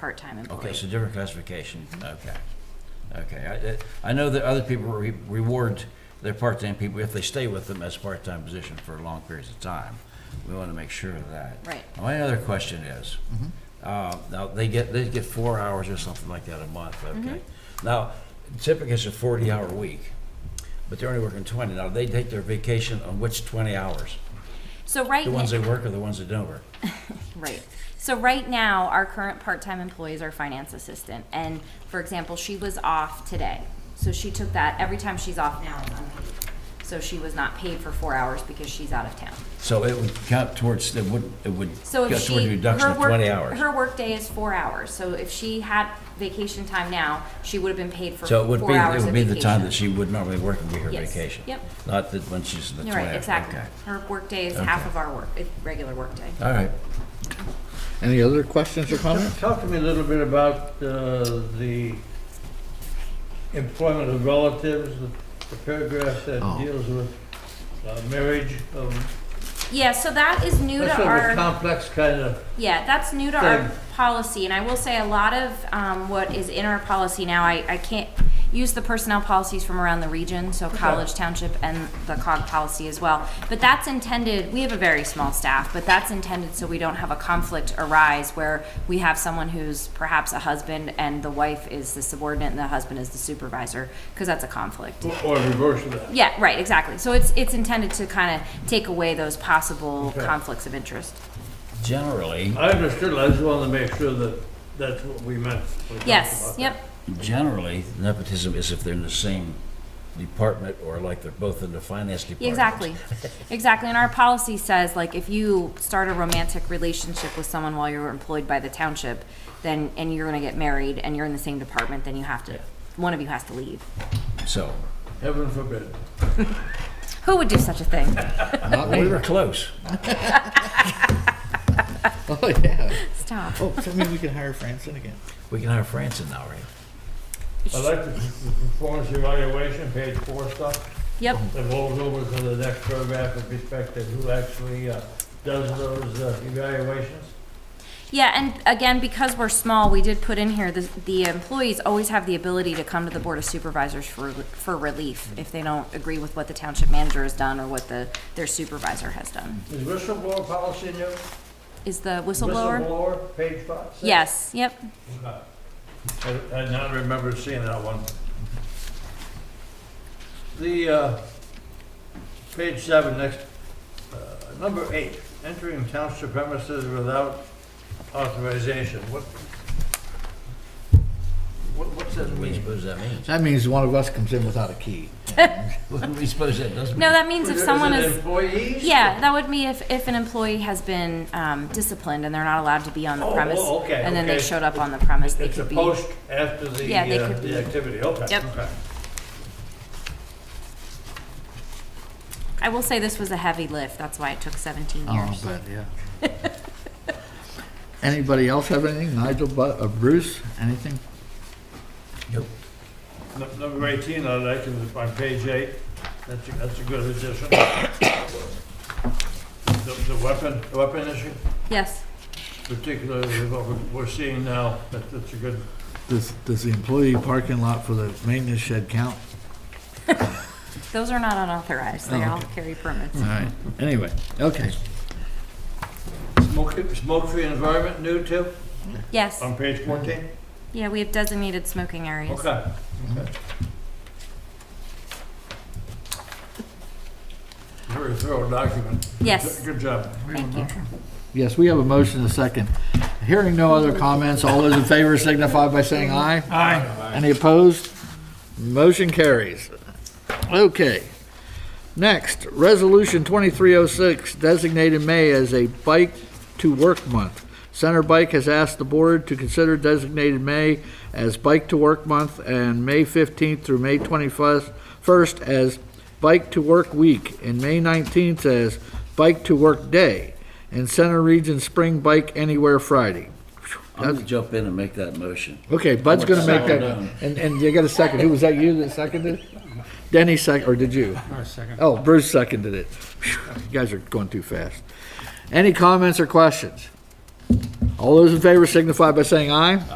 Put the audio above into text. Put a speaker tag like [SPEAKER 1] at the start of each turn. [SPEAKER 1] part-time
[SPEAKER 2] Okay,
[SPEAKER 1] employee.
[SPEAKER 2] so different classification, okay. Okay, I, I know that other people re- reward their part-time people if they stay with them as part-time position for long periods of time. We want to make sure of that.
[SPEAKER 1] Right.
[SPEAKER 2] My other question is, uh, now, they get, they get four hours or something like that a month, okay?
[SPEAKER 1] Mm-hmm.
[SPEAKER 2] Now, typically it's a forty-hour week, but they're only working twenty. Now, they take their vacation on which twenty hours?
[SPEAKER 1] So right.
[SPEAKER 2] The ones
[SPEAKER 1] n-
[SPEAKER 2] they work or the ones that don't work?
[SPEAKER 1] Right. So right now, our current part-time employee is our finance assistant, and for example, she was off today. So she took that, every time she's off now, it's unpaid. So she was not paid for four hours because she's out of town.
[SPEAKER 2] So it would count towards, it would, it would
[SPEAKER 1] So
[SPEAKER 2] count
[SPEAKER 1] if
[SPEAKER 2] towards the
[SPEAKER 1] she,
[SPEAKER 2] reduction
[SPEAKER 1] her
[SPEAKER 2] of
[SPEAKER 1] work,
[SPEAKER 2] twenty hours.
[SPEAKER 1] her workday is four hours, so if she had vacation time now, she would have been paid for
[SPEAKER 2] So it
[SPEAKER 1] four hours
[SPEAKER 2] would
[SPEAKER 1] of
[SPEAKER 2] be,
[SPEAKER 1] vacation.
[SPEAKER 2] it would be the time that she would normally work would be her
[SPEAKER 1] Yes.
[SPEAKER 2] vacation?
[SPEAKER 1] Yep.
[SPEAKER 2] Not that when she's in the
[SPEAKER 1] You're
[SPEAKER 2] 20
[SPEAKER 1] right, exactly.
[SPEAKER 2] okay.
[SPEAKER 1] Her workday is half
[SPEAKER 2] Okay.
[SPEAKER 1] of our work, eh, regular workday.
[SPEAKER 2] All right.
[SPEAKER 3] Any other questions or comments?
[SPEAKER 4] Talk to me a little bit about uh, the employment of relatives, the paragraph that
[SPEAKER 3] Oh.
[SPEAKER 4] deals with uh, marriage. um,
[SPEAKER 1] Yeah, so that is new to
[SPEAKER 4] That's sort
[SPEAKER 1] our.
[SPEAKER 4] of a complex kind of,
[SPEAKER 1] Yeah, that's new to our
[SPEAKER 4] Good.
[SPEAKER 1] policy, and I will say a lot of um, what is in our policy now, I, I can't use the personnel policies from around the region, so college, township, and the COG policy as well. But that's intended, we have a very small staff, but that's intended so we don't have a conflict arise where we have someone who's perhaps a husband and the wife is the subordinate and the husband is the supervisor, because that's a conflict.
[SPEAKER 4] or reverse of that.
[SPEAKER 1] Yeah, right, exactly. So it's, it's intended to kind of take away those possible
[SPEAKER 4] Okay.
[SPEAKER 1] conflicts of interest.
[SPEAKER 2] Generally,
[SPEAKER 4] I understood, I just wanted to make sure that that's what we meant. when we talked
[SPEAKER 1] Yes,
[SPEAKER 4] about that.
[SPEAKER 1] yep.
[SPEAKER 2] generally nepotism is if they're in the same department or like they're both in the finance department.
[SPEAKER 1] Exactly, exactly. And our policy says, like, if you start a romantic relationship with someone while you're employed by the township, then, and you're gonna get married and you're in the same department, then you have to, one of you has to leave.
[SPEAKER 2] So,
[SPEAKER 4] Heaven forbid.
[SPEAKER 1] Who would do such a thing?
[SPEAKER 3] Not
[SPEAKER 2] we
[SPEAKER 3] me.
[SPEAKER 2] were close.
[SPEAKER 3] Oh, yeah.
[SPEAKER 1] Stop.
[SPEAKER 3] Oh, so maybe we can hire Franson again.
[SPEAKER 2] We can hire Franson now, right?
[SPEAKER 4] I like the the performance evaluation, page four stuff,
[SPEAKER 1] Yep,
[SPEAKER 4] that rolls over to the next paragraph with respect to who actually uh, does those uh, evaluations.
[SPEAKER 1] yeah, and again, because we're small, we did put in here, the, the employees always have the ability to come to the Board of Supervisors for, for relief if they don't agree with what the township manager has done or what the, their supervisor has done.
[SPEAKER 4] Is whistleblower policy new?
[SPEAKER 1] Is the whistleblower?
[SPEAKER 4] Whistleblower, page five? six?
[SPEAKER 1] Yes, yep.
[SPEAKER 4] Okay. I, I not remember seeing that one. The, uh, page seven, next, uh, number eight, entering township premises without authorization, what? What, what's that
[SPEAKER 2] What do you
[SPEAKER 4] mean?
[SPEAKER 2] suppose that means?
[SPEAKER 3] That means one of us comes in without a key. Um,
[SPEAKER 2] What do you suppose that doesn't
[SPEAKER 1] No,
[SPEAKER 2] mean?
[SPEAKER 1] that means if someone
[SPEAKER 4] it
[SPEAKER 1] is.
[SPEAKER 4] Employees?
[SPEAKER 1] Yeah, that would be if, if an employee has been um, disciplined and they're not allowed to be on the
[SPEAKER 4] Oh,
[SPEAKER 1] premise.
[SPEAKER 4] oh, okay,
[SPEAKER 1] And then they
[SPEAKER 4] okay.
[SPEAKER 1] showed up on the premise, they
[SPEAKER 4] It's a
[SPEAKER 1] could be.
[SPEAKER 4] post after the,
[SPEAKER 1] Yeah, they
[SPEAKER 4] uh,
[SPEAKER 1] could be-
[SPEAKER 4] the activity, okay.
[SPEAKER 1] Yep.
[SPEAKER 4] okay.
[SPEAKER 1] I will say this was a heavy lift, that's why it took 17
[SPEAKER 3] Oh,
[SPEAKER 1] years.
[SPEAKER 3] but, yeah. Anybody else have anything? Nigel, Bu- uh, Bruce, anything?
[SPEAKER 2] Nope.
[SPEAKER 4] Nu- Number 18, I like, is on page eight. That's, a- that's a good addition. The the weapon, the weapon issue,
[SPEAKER 1] Yes,
[SPEAKER 4] particularly with what we're- we're seeing now, that- that's a good,
[SPEAKER 3] Does, does the employee parking lot for the maintenance shed count?
[SPEAKER 1] those are not unauthorized,
[SPEAKER 3] Oh.
[SPEAKER 1] they all carry permits.
[SPEAKER 3] All right, anyway, okay.
[SPEAKER 4] smoke- smoke-free environment, new too,
[SPEAKER 1] Yes,
[SPEAKER 4] on page 14?
[SPEAKER 1] yeah, we have designated smoking areas.
[SPEAKER 4] Okay. okay. Very thorough document.
[SPEAKER 1] Yes.
[SPEAKER 4] Good job.
[SPEAKER 1] Thank you.
[SPEAKER 3] Yes, we have a motion and a second. Hearing no other comments, all those in favor signify by saying aye. Aye. Any opposed? Motion carries. Okay. Next, Resolution 2306 designated May as a Bike to Work Month. Center Bike has asked the board to consider designated May as Bike to Work Month and May 15th through May 21st first as Bike to Work Week and May 19th as Bike to Work Day and Center Region Spring Bike Anywhere Friday.
[SPEAKER 2] I'm gonna jump in and make that motion.
[SPEAKER 3] Okay, Bud's
[SPEAKER 2] I want
[SPEAKER 3] gonna make
[SPEAKER 2] second.
[SPEAKER 3] that, and, and you got a second, who was that you that seconded? Denny sec, or did you? I seconded. Oh, Bruce seconded it. Phew, You guys are going too fast. Any comments or questions? All All those in favor signify by saying aye.